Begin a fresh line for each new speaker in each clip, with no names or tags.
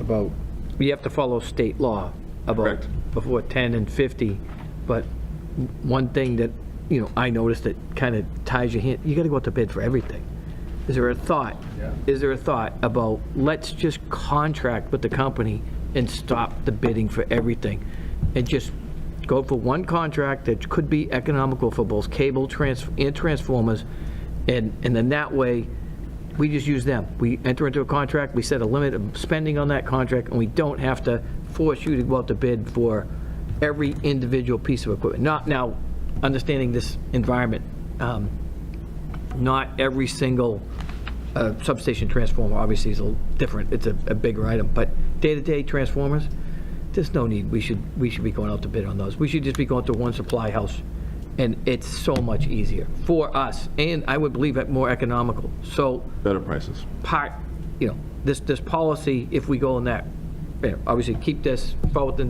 about, you have to follow state law about
Correct.
before 10 and 50, but one thing that, you know, I noticed that kind of ties your hand, you got to go out to bid for everything. Is there a thought?
Yeah.
Is there a thought about, let's just contract with the company and stop the bidding for everything? And just go for one contract that could be economical for both cable trans and transformers, and, and then that way, we just use them. We enter into a contract, we set a limit of spending on that contract, and we don't have to force you to go out to bid for every individual piece of equipment. Not now, understanding this environment, um, not every single uh, substation transformer, obviously, is a little different, it's a a bigger item, but day-to-day transformers, there's no need, we should, we should be going out to bid on those. We should just be going to one supply house, and it's so much easier for us, and I would believe it more economical. So
Better prices.
part, you know, this, this policy, if we go in that, you know, obviously keep this, follow the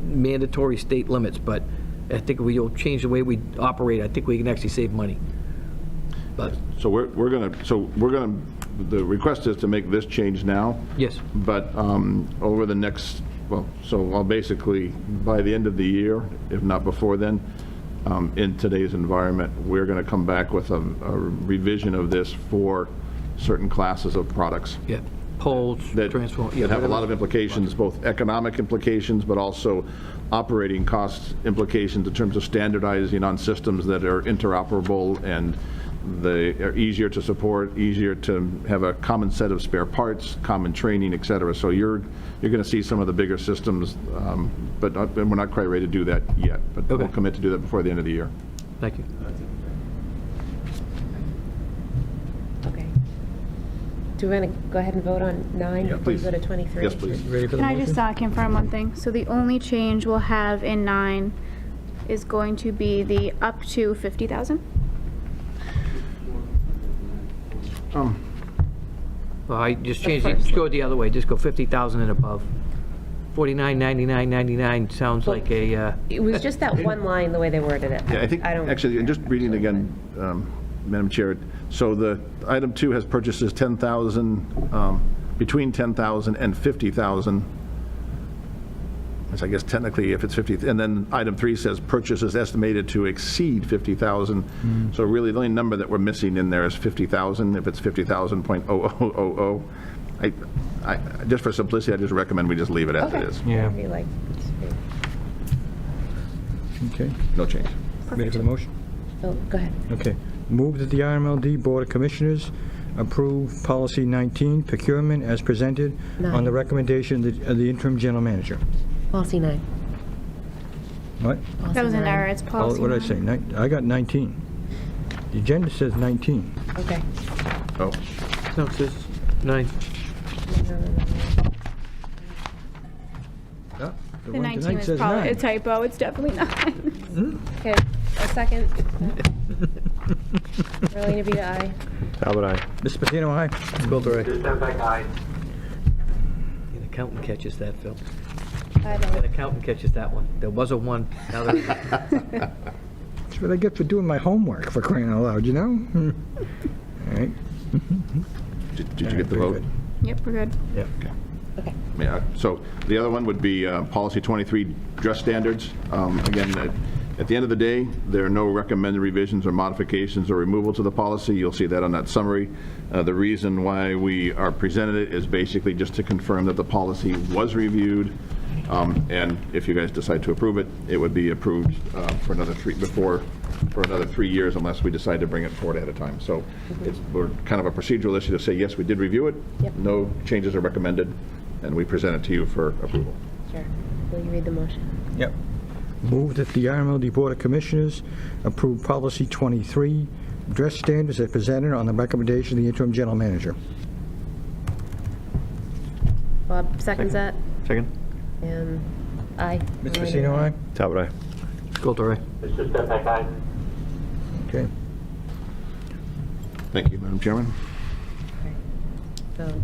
mandatory state limits, but I think we will change the way we operate, I think we can actually save money. But,
So we're, we're going to, so we're going to, the request is to make this change now.
yes,
But um, over the next, well, so I'll basically, by the end of the year, if not before then, um, in today's environment, we're going to come back with a a revision of this for certain classes of products.
yeah, poles,
that
transform, yeah.
that have a lot of implications, both economic implications, but also operating cost implications in terms of standardizing on systems that are interoperable and they are easier to support, easier to have a common set of spare parts, common training, et cetera. So you're, you're going to see some of the bigger systems, um, but not- but we're not quite ready to do that yet. But we'll
Okay.
commit to do that before the end of the year.
Thank you.
Okay. Do we want to go ahead and vote on nine?
Yeah,
before we
please.
Go to 23?
Yes, please.
Ready for the
Can I just
motion?
uh, confirm one thing? So the only change we'll have in nine is going to be the up to 50,000?
Well, I just changed it, just go it the other way, just go 50,000 and above. 49, 99, 99 sounds like a, uh,
It was just that one line, the way they worded it.
Yeah, I think,
don't-
actually, and just reading again, um, Madam Chair, so the, item two has purchases 10,000, um, between 10,000 and 50,000. Which I guess technically if it's 50, and then item three says purchases estimated to exceed 50,000. So really, the only number that we're missing in there is 50,000, if it's 50,000.0000. I, I, just for simplicity, I just recommend we just leave it as
Okay.
it is.
Yeah.
Be like,
Okay,
No change.
ready for the motion?
oh, go ahead.
Okay. Move that the RMLD Board of Commissioners approve Policy 19 procurement as presented on the
Nine.
recommendation of the- of the interim general manager.
Policy nine.
What?
That was an error, it's
Oh,
policy.
What did I
nine.
say? Nine- I got 19. The agenda says 19.
Okay.
Oh,
no, it says nine.
No, no, no, no.
Yeah,
The
one
19
tonight
was
says
probably a
nine. Hmm?
typo, it's definitely nine.
Okay, a second. Marlena Bita, aye.
Talbot, aye.
Mr. Patino, aye.
An accountant catches that, Phil.
Five
An
ayes.
accountant catches that one. There was a one, now there's a
That's what I get for doing my homework, for crying out loud, you know? Hmm. All right.
did did you get the vote?
Yep, we're good.
Okay.
Yeah, so the other one would be uh, Policy 23, Dress Standards. Um, Again, at- at the end of the day, there are no recommended revisions or modifications or removal to the policy. You'll see that on that summary. Uh, The reason why we are presented it is basically just to confirm that the policy was reviewed, um, and if you guys decide to approve it, it would be approved uh, for another three, before, for another three years unless we decide to bring it forward at a time. So it's, we're kind of a procedural issue to say, yes, we did review it.
Yep.
No changes are recommended, and we present it to you for approval.
Sure. Will you read the motion?
Yep. Move that the RMLD Board of Commissioners approve Policy 23, dress standards as presented on the recommendation of the interim general manager.
Bob seconds that,
Second.
and aye.
Mr.
Marlena,
Pacino, aye?
Talbot, aye.
Sculter, aye.
Mr. Stefan, aye.
Okay.
Thank you, Madam Chairman.
So Um,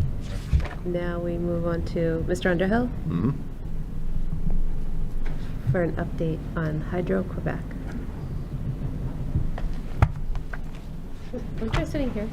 now we move on to Mr. Underhill?
Mm-hmm.
For an update on Hydro Quebec. I'm just sitting here.